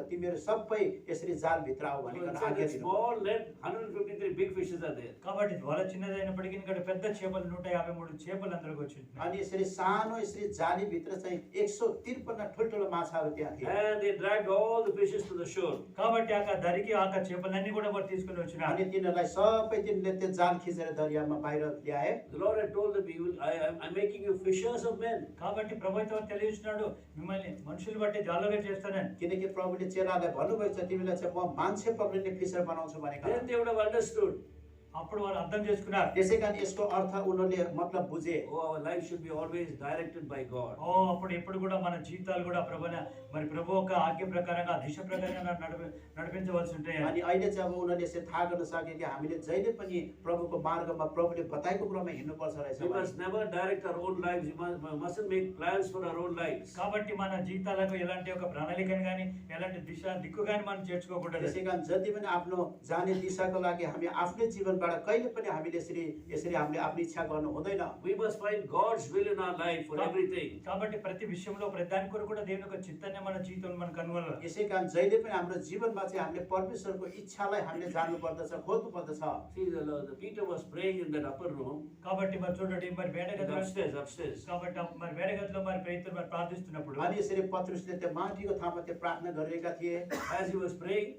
मेरो सबै यसरी जालभित्र आऊ So भनेर inside आज्ञा that दिनु small net, 153 big fishes are there. కాబట్టి వల చిన్నది అయినప్పటికీ ఇక్కడ పెద్ద చేపలు నూట యాభై మూడు చేపలు అందరికి వచ్చింటున్నాయి अनि यसरी सानो यसरी जालीभित्र चाहिँ एक सौ त्रिपन्न ठुल्ठुलो माछाहरू त्यहाँ थिए And they dragged all the fishes to the shore. కాబట్టి ఆ ధరికి ఆ చేపలన్నీ కూడా వారు తీసుకుని अनि వచ్చినారు तिनीहरूलाई सबै तिनीहरूले त्यो जाल खिचेर दरियामा बाहिर ल्याए The Lord had told them, "You will- I, am I'm making you fishers of men. కాబట్టి ప్రభుత్వం తెలియజేసినాడు మిమ్మల్ని మనుషులు బట్టి జాలుగా చేస్తానని किनकि प्रभुले चेलालाई भन्नुभएको छ तिमीलाई चाहिँ म मान्छे पक्रिने फिसर बनाउँछु भनेको Then they would have understood, అప్పుడు వారు అర్థం చేసుకున్నారు त्यसै कारण यसको अर्थ उनीहरूले मतलब बुझे oh, our life should be always directed by God. ఓ అప్పుడు ఎప్పుడు కూడా మన జీవితాలు కూడా ప్రభున మరి ప్రభు ఒక ఆజ్ఞ ప్రకారంగా దిశ ప్రకారంగా నడిపి నడిపించవలసి ఉంటాయి अनि अहिले चाहिँ अब उनीहरूले यसरी थाहा गर्न सके कि हामीले जहिले पनि प्रभुको मार्गमा प्रभुले बताएको कुरामा हिँड्नुपर्छ रहेछ We भने। must never direct our own lives. We must- we mustn't make plans for our own lives. కాబట్టి మన జీవితాలకు ఎలాంటి ఒక ప్రణాళికను కానీ ఎలాంటి దిశ దిక్కు కానీ మనం చేర్చుకోకూడదు त्यसै कारण जति पनि आफ्नो जाने दिशाको लागि हामी आफ्नै जीवनबाट कहिले पनि हामीले यसरी यसरी हामीले आफ्नो इच्छा गर्नु हुँदैन We must find God's will in our life for everything. కాబట్టి ప్రతి విషయంలో ప్రతి దాని కొరకు కూడా దేవుని యొక్క చిత్తాన్ని మన జీవితంలో మనం కనుగొనాలి यसै कारण जहिले पनि हाम्रो जीवनमा चाहिँ हामीले परमेश्वरको इच्छालाई हामीले जान्नु पर्दछ खोज्नु पर्दछ See, the, the Peter was praying in that upper room, కాబట్టి మరి చూడండి మరి వేడ in the గదిలో upstairs, upstairs. కాబట్టి ఆ మరి వేడ గదిలో మరి పేతులు మరి ప్రార్థిస్తున్నప్పుడు अनि यसरी पत्रुसले त्यो माटीको थामा त्यो प्रार्थना गरेका थिए As he was praying,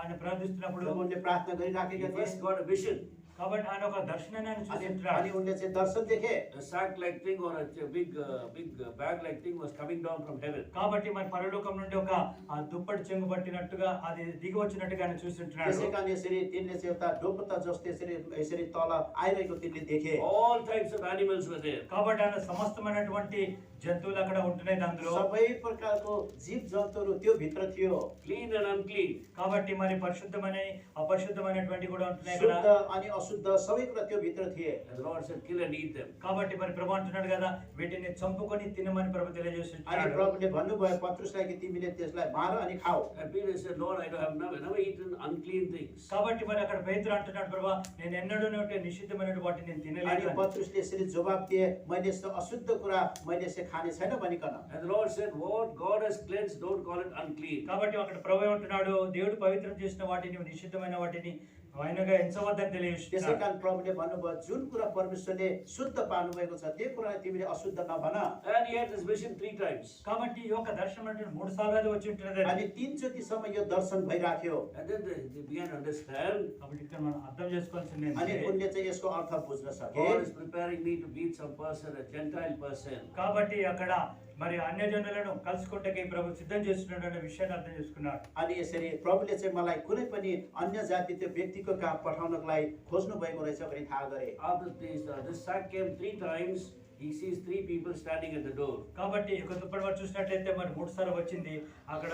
ఆయన ప్రార్థిస్తున్నప్పుడు जब उनले प्रार्थना he गरिराखेका थिए first got a vision. కాబట్టి ఆయన ఒక దర్శనాన్ని ఆయన अनि చూసి अनि ఉంటున్నాడు. उनले चाहिँ दर्शन देखे a sack like thing or a ch- big uh, big uh, bag like thing was coming down from heaven కాబట్టి మరి పరలోకం నుండి ఒక ఆ దుప్పటి చెంగు పట్టినట్టుగా అది దిగి వచ్చినట్టుగా ఆయన చూస్తుంటున్నాడు त्यसै कारण यसरी तिनले चाहिँ एउटा डोपत्ता जस्तो यसरी यसरी तल आइरहेको तिनले देखे all types of animals were there కాబట్టి ఆయన సమస్తమైనటువంటి జంతువులు అక్కడ ఉంటున్నాయి అందులో सबै प्रकारको जीव जन्तुहरू त्यो भित्र थियो clean and unclean కాబట్టి మరి పరిశుద్ధమైన అపరిశుద్ధమైనటువంటి కూడా ఉంటున్నాయి शुद्ध కదా अनि अशुद्ध सबै कुरा त्यो भित्र थिए and the lord said kill and eat them కాబట్టి మరి ప్రభు అంటున్నాడు కదా వీటిని చంపుకొని తినమని ప్రభు अनि తెలియజేస్తున్నాడు प्रभुले भन्नुभयो पत्रुसलाई कि तिमीले त्यसलाई मार अनि खाऊ and peter said lord i don't have never, never eaten unclean things కాబట్టి మరి అక్కడ పేతులు అంటున్నాడు ప్రభా నేను ఎన్నడూ నిషిద్ధమైన వాటిని నేను తినలేదు अनि అని. पत्रुसले यसरी जवाब दिए मैले यस्तो अशुद्ध कुरा मैले यसरी खाने छैन भनिकन and the lord said what god has cleansed don't call it unclean కాబట్టి అక్కడ ప్రభు ఏమంటున్నాడు దేవుడు పవిత్రం చేసిన వాటిని నిషిద్ధమైన వాటిని ఆయనగా ఎంచవద్దని त्यसै తెలియజేస్తున్నాడు कारण प्रभुले भन्नुभयो जुन कुरा परमेश्वरले शुद्ध पार्नुभएको छ त्यो कुरालाई तिमीले अशुद्ध नभन and he had this vision three times కాబట్టి ఈ యొక్క దర్శనం అంటే మూడు సార్లు అది వచ్చి ఉంటున్నది अनि तिनचोटिसम्म यो दर्शन भइराख्यो and then they, they began to understand కాబట్టి ఇక్కడ మనం అర్థం చేసుకోవాల్సింది अनि ఏంటంటే, उनले चाहिँ यसको अर्थ बुझ्न सके god is preparing me to meet some person a gentile person కాబట్టి అక్కడ మరి అన్య జనులను కలుసుకుంటే ప్రభు సిద్ధం చేస్తున్నాడు అనే విషయాన్ని అర్థం చేసుకున్నాడు अनि यसरी प्रभुले चाहिँ मलाई कुनै पनि अन्य जाति त्यो व्यक्तिको कहाँ पठाउनको लागि खोज्नु भएको रहेछ भने थाहा गरे After this, uh, this sack came three times. He sees three people standing at the door. కాబట్టి ఒక దుప్పటి వారు చూసినట్లయితే మరి మూడు సార్లు వచ్చింది అక్కడ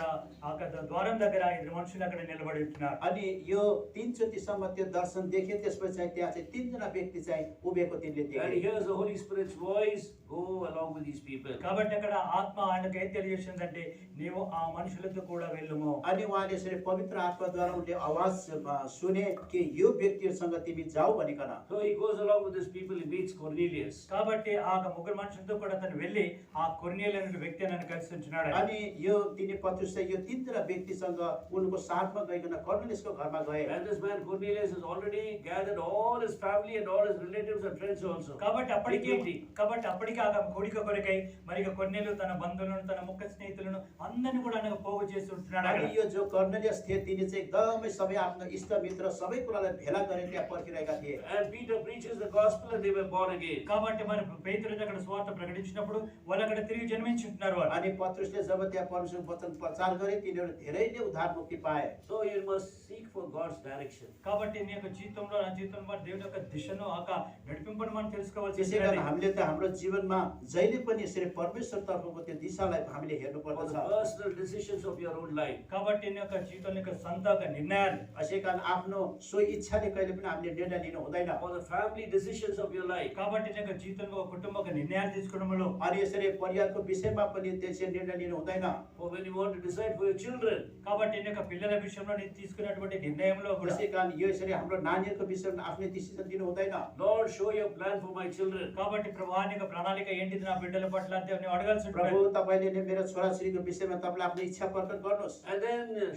అక్కడ ద్వారం దగ్గర ఇద్దరు మనుషులు అక్కడ నిలబడి ఉంటున్నారు अनि यो तिनचोटिसम्म त्यो दर्शन देखे त्यसपछि चाहिँ त्यहाँ चाहिँ तिनजना व्यक्ति चाहिँ उभिएको तिनले And देखे he hears the Holy Spirit's voice go along with these people. కాబట్టి అక్కడ ఆత్మ ఆయనకు ఏం తెలియజేసిందంటే నీవు ఆ మనుషులతో కూడా వెళ్ళుము अनि उहाँले यसरी पवित्र आत्माद्वारा उनले आवाज अ, सुने कि यो व्यक्तिहरूसँग तिमी जाऊ भनिकन So he goes along with these people. He meets Cornelius. కాబట్టి ఆ ముగ్గురు మనుషులతో కూడా అతను వెళ్ళి ఆ కొర్నేలు అనే వ్యక్తి నన్ను కలిసి ఉంటున్నాడు अनि यो तिनी पत्रुस चाहिँ यो तिनजना व्यक्तिसँग उनको साथमा गइकन कर्णलेसको घरमा गए And this man Cornelius has already gathered all his family and all his relatives and friends also. కాబట్టి అప్పటికే Big meeting. కాబట్టి అప్పటికే ఆ కోడిక కొరకై మరి ఇక కొన్నేలు తన బంధువులను తన ముఖ స్నేహితులను అందరిని కూడా ఆయన పోగు చేసి ఉంటున్నాడు అక్కడ. अनि यो जो कर्णलेस थिए तिनी चाहिँ एकदमै सबै आफ्नो इष्टमित्र सबै कुरालाई भेला गरेर त्यहाँ पर्खिरहेका थिए And Peter preaches the gospel and they were born again. కాబట్టి మరి పేతులు అక్కడ స్వార్థ ప్రకటించినప్పుడు వాళ్ళు అక్కడ తిరిగి జన్మించుంటున్నారు వాళ్ళు अनि पत्रुसले जब त्यहाँ परमेश्वरको वचन प्रचार गरे तिनीहरू धेरैले उद्धार मुक्ति पाए So you must seek for God's direction. కాబట్టి నీ యొక్క జీవితంలో నా జీవితంలో మరి దేవుని యొక్క దిశను ఆక నడిపింపని మనం తెలుసుకోవాల్సి त्यसै कारण ఉంటుంది. हामीले त हाम्रो जीवनमा जहिले पनि यसरी परमेश्वर तर्फको त्यो दिशालाई हामीले हेर्नु For the पर्दछ personal decisions of your own life. కాబట్టి నీ యొక్క జీవితంలో యొక్క సొంత ఒక నిర్ణయాలు यसै कारण आफ्नो सो इच्छाले कहिले पनि हामीले निर्णय लिनु हुँदैन For the family decisions of your life. కాబట్టి నీ యొక్క జీవితంలో ఒక కుటుంబ ఒక నిర్ణయాలు తీసుకోవడంలో अनि यसरी परिवारको विषयमा पनि त्यसरी निर्णय लिनु हुँदैन For when you want to decide for your children. కాబట్టి నీ యొక్క పిల్లల విషయంలో నేను తీసుకున్నటువంటి నిర్ణయంలో కూడా त्यसै कारण यो यसरी हाम्रो नानीहरूको विषयमा आफ्नै डिसिजन दिनु हुँदैन Lord, show your plan for my children. కాబట్టి ప్రభు నీ యొక్క ప్రణాళిక ఏంటిది నా బిడ్డల పట్ల అంటే నువ్వు అడగాల్సి ఉంటుంది प्रभु तपाईँले नै मेरो छोराछोरीको विषयमा तपाईँले आफ्नो इच्छा प्रकट गर्नुहोस् And then uh,